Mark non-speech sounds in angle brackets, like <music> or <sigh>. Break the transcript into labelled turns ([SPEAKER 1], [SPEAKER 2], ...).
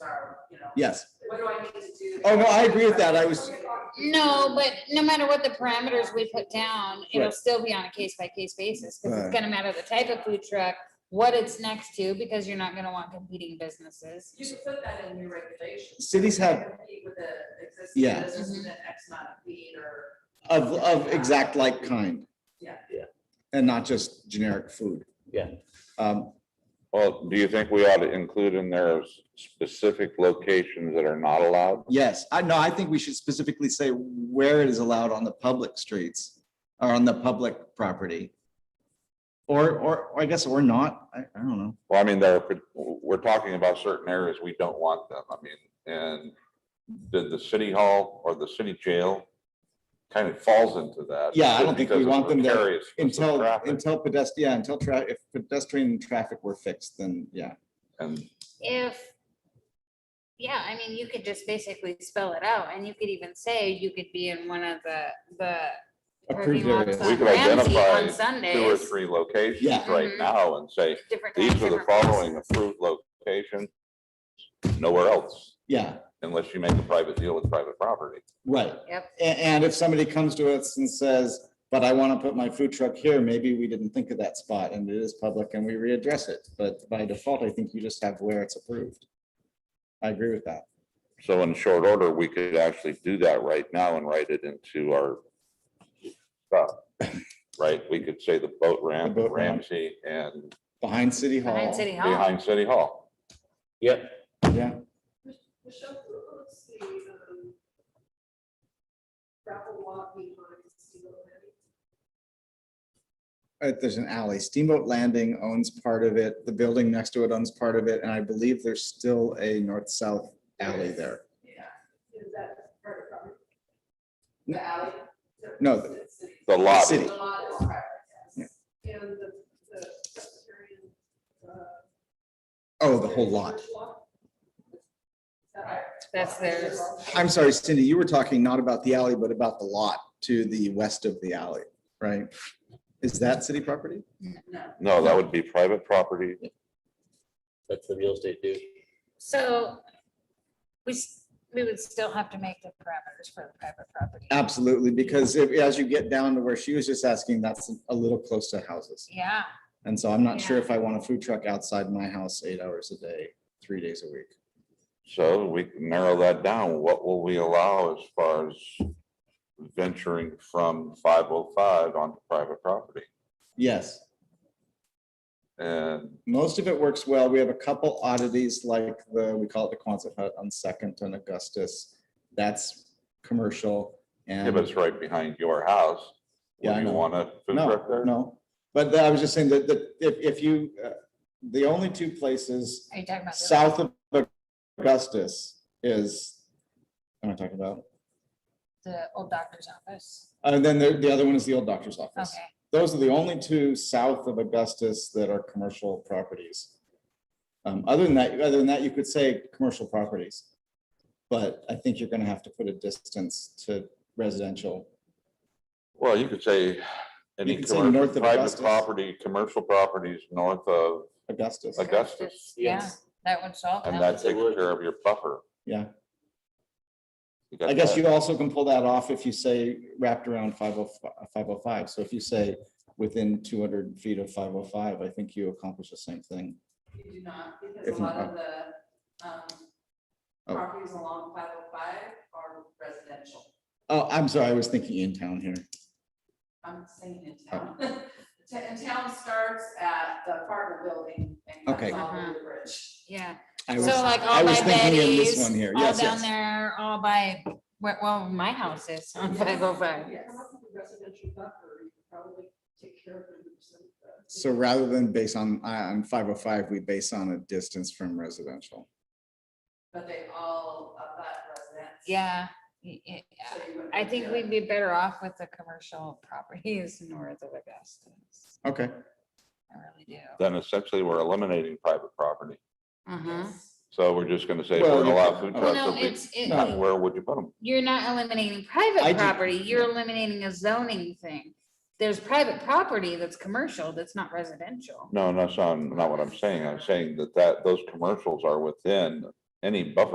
[SPEAKER 1] Yes.
[SPEAKER 2] What do I need to do?
[SPEAKER 1] Oh, no, I agree with that. I was-
[SPEAKER 3] No, but no matter what the parameters we put down, it'll
[SPEAKER 1] Right.
[SPEAKER 3] still be on a case by case basis, because
[SPEAKER 1] Right.
[SPEAKER 3] it's gonna matter the type of food truck, what it's next to, because you're not gonna want competing businesses.
[SPEAKER 2] You should put that in your regulations.
[SPEAKER 1] Cities have-
[SPEAKER 2] Compete With the existing
[SPEAKER 1] Yeah.
[SPEAKER 2] business with
[SPEAKER 3] Mm-hmm.
[SPEAKER 2] an X amount of feet or,
[SPEAKER 1] Of, of exact like kind.
[SPEAKER 2] Yeah.
[SPEAKER 4] Yeah.
[SPEAKER 1] And not just generic food.
[SPEAKER 4] Yeah.
[SPEAKER 1] Um,
[SPEAKER 5] Well, do you think we ought to include in there s- specific locations that are not allowed?
[SPEAKER 1] yes, I know, I think we should specifically say where it is allowed on the public streets or on the public property. Or, or, or I guess, or not, I, I don't know.
[SPEAKER 5] Well, I mean, there, could- we're talking about certain areas, we don't want them, I mean, and did the city hall or the city jail kind of falls into that?
[SPEAKER 1] Yeah, I
[SPEAKER 5] just
[SPEAKER 1] don't think we
[SPEAKER 5] because of
[SPEAKER 1] want them there
[SPEAKER 5] precarious
[SPEAKER 1] Until,
[SPEAKER 5] traffic
[SPEAKER 1] until pedestrian, yeah, until tra, if pedestrian and traffic were fixed, then yeah.
[SPEAKER 5] And,
[SPEAKER 3] If, yeah, I mean, you could just basically spell it out, and you could even say you could be in one of the, the.
[SPEAKER 1] Approved
[SPEAKER 3] parking
[SPEAKER 1] areas.
[SPEAKER 3] lots on
[SPEAKER 5] We could
[SPEAKER 3] Ramsey
[SPEAKER 5] identify
[SPEAKER 3] On
[SPEAKER 5] two or
[SPEAKER 3] Sundays.
[SPEAKER 5] three locations
[SPEAKER 1] Yeah.
[SPEAKER 5] right
[SPEAKER 3] Mhm.
[SPEAKER 5] now and say,
[SPEAKER 3] different
[SPEAKER 5] these
[SPEAKER 3] times,
[SPEAKER 5] are the
[SPEAKER 3] different
[SPEAKER 5] following
[SPEAKER 3] places.
[SPEAKER 5] approved locations, nowhere else,
[SPEAKER 1] Yeah,
[SPEAKER 5] unless you make a private deal with private property.
[SPEAKER 1] right.
[SPEAKER 3] Yep.
[SPEAKER 1] A- And if somebody comes to us and says, but I want to put my food truck here, maybe we didn't think of that spot and it is public and we readdress it. But by default, I think you just have where it's approved. I agree with that.
[SPEAKER 5] So in short order, we could actually do that right now and write it into our stuff, right? We could say the boat ramp,
[SPEAKER 1] boat ramp.
[SPEAKER 5] Ramsey and
[SPEAKER 1] Behind City Hall.
[SPEAKER 3] Behind City Hall.
[SPEAKER 5] behind City Hall.
[SPEAKER 4] Yep,
[SPEAKER 1] Yeah,
[SPEAKER 2] Michelle, let's see, um, gravel walk behind Steel City.
[SPEAKER 1] Uh, there's an alley. Steamboat Landing owns part of it. The building next to it owns part of it. And I believe there's still a north-south alley there.
[SPEAKER 2] Yeah, is that part of the property?
[SPEAKER 1] No.
[SPEAKER 2] The alley?
[SPEAKER 1] No,
[SPEAKER 2] it's-
[SPEAKER 1] the-
[SPEAKER 2] it's city.
[SPEAKER 5] The lobby.
[SPEAKER 1] City.
[SPEAKER 2] The lot is private, yes. And the, the Presbyterian, uh.
[SPEAKER 1] Oh, the whole lot.
[SPEAKER 2] church lot? Is that right?
[SPEAKER 3] That's theirs.
[SPEAKER 1] I'm sorry, Cindy, you were talking not about the alley, but about the lot to the west of the alley, right? Is that city property?
[SPEAKER 2] No.
[SPEAKER 5] No, that would be private property.
[SPEAKER 4] that's the real estate dude.
[SPEAKER 3] So we, s- we would still have to make the parameters for the private property.
[SPEAKER 1] Absolutely, because if, as you get down to where she was just asking, that's a little close to houses.
[SPEAKER 3] Yeah,
[SPEAKER 1] And so I'm not sure if I want a food truck outside my house eight hours a day, three days a week.
[SPEAKER 5] So we can narrow that down. What will we allow as far as venturing from five oh five onto private property?
[SPEAKER 1] Yes,
[SPEAKER 5] And
[SPEAKER 1] most of it works well. We have a couple oddities like the, we call it the Quonset Hut on Second and Augustus. That's commercial and.
[SPEAKER 5] if it's right behind your house,
[SPEAKER 1] Yeah, I
[SPEAKER 5] would you
[SPEAKER 1] know.
[SPEAKER 5] want a food
[SPEAKER 1] No,
[SPEAKER 5] truck there?
[SPEAKER 1] no, but I was just saying that, that if, if you, uh, the only two places
[SPEAKER 3] are you talking about? the-
[SPEAKER 1] south of Augustus is, am I talking about?
[SPEAKER 3] The old doctor's office.
[SPEAKER 1] And then the, the other one is the old doctor's office.
[SPEAKER 3] Okay,
[SPEAKER 1] Those are the only two south of Augustus that are commercial properties. Um, other than that, other than that, you could say commercial properties. But I think you're gonna have to put a distance to residential.
[SPEAKER 5] Well, you could say any
[SPEAKER 1] could say
[SPEAKER 5] commercial-
[SPEAKER 1] north of
[SPEAKER 5] private
[SPEAKER 1] Augustus.
[SPEAKER 5] property, commercial properties north of
[SPEAKER 1] Augustus,
[SPEAKER 5] Augustus,
[SPEAKER 3] Augustus, yeah, that would solve.
[SPEAKER 5] and
[SPEAKER 3] that.
[SPEAKER 5] that takes care of your buffer.
[SPEAKER 1] yeah.
[SPEAKER 5] You got
[SPEAKER 1] I guess
[SPEAKER 5] that?
[SPEAKER 1] you also can pull that off if you say wrapped around 505 505. So if you say within two hundred feet of five oh five, I think you accomplish the same thing.
[SPEAKER 2] You do not,
[SPEAKER 1] If
[SPEAKER 2] because a lot
[SPEAKER 1] not,
[SPEAKER 2] of the, um,
[SPEAKER 1] Oh.
[SPEAKER 2] properties along five oh five are residential.
[SPEAKER 1] Oh, I'm sorry, I was thinking in town here.
[SPEAKER 2] I'm saying in
[SPEAKER 1] Oh.
[SPEAKER 2] town. <laughs> Ta- And town starts at the apartment building and
[SPEAKER 1] Okay.
[SPEAKER 2] comes all
[SPEAKER 3] Uh-huh.
[SPEAKER 2] over the bridge.
[SPEAKER 3] Yeah,
[SPEAKER 1] I
[SPEAKER 3] so uh,
[SPEAKER 1] was,
[SPEAKER 3] like
[SPEAKER 1] I
[SPEAKER 3] all
[SPEAKER 1] was
[SPEAKER 3] by
[SPEAKER 1] thinking in this one
[SPEAKER 3] Betty's,
[SPEAKER 1] here.
[SPEAKER 3] all
[SPEAKER 1] Yes,
[SPEAKER 3] down
[SPEAKER 1] yes.
[SPEAKER 3] there, all by, where- well, my house is <laughs> on
[SPEAKER 2] Yeah.
[SPEAKER 3] five oh five.
[SPEAKER 2] Yeah, come up with a residential buffer, you could probably take care of it.
[SPEAKER 1] So rather than base on, on five oh five, we base on a distance from residential.
[SPEAKER 2] But they all, uh, that residents.
[SPEAKER 3] Yeah, y- y- yeah.
[SPEAKER 2] So you wouldn't
[SPEAKER 3] I
[SPEAKER 2] really
[SPEAKER 3] think
[SPEAKER 2] do
[SPEAKER 3] we'd
[SPEAKER 2] it.
[SPEAKER 3] be better off with the commercial properties <laughs> north of Augustus.
[SPEAKER 1] Okay,
[SPEAKER 3] I really do.
[SPEAKER 5] Then essentially, we're eliminating private property.
[SPEAKER 3] Uh-huh.
[SPEAKER 2] Yes.
[SPEAKER 5] So we're just gonna say,
[SPEAKER 1] Well,
[SPEAKER 5] we're gonna
[SPEAKER 1] you-
[SPEAKER 5] allow food
[SPEAKER 1] Well,
[SPEAKER 5] trucks.
[SPEAKER 3] No,
[SPEAKER 5] if we-
[SPEAKER 3] it's, it-
[SPEAKER 1] No.
[SPEAKER 5] Where would you put them?
[SPEAKER 3] you're not eliminating
[SPEAKER 1] I
[SPEAKER 3] private
[SPEAKER 1] do-
[SPEAKER 3] property, you're eliminating a zoning thing. There's private property that's commercial, that's not residential.
[SPEAKER 5] No, that's not, not what I'm saying. I'm saying that that, those commercials are within any buffer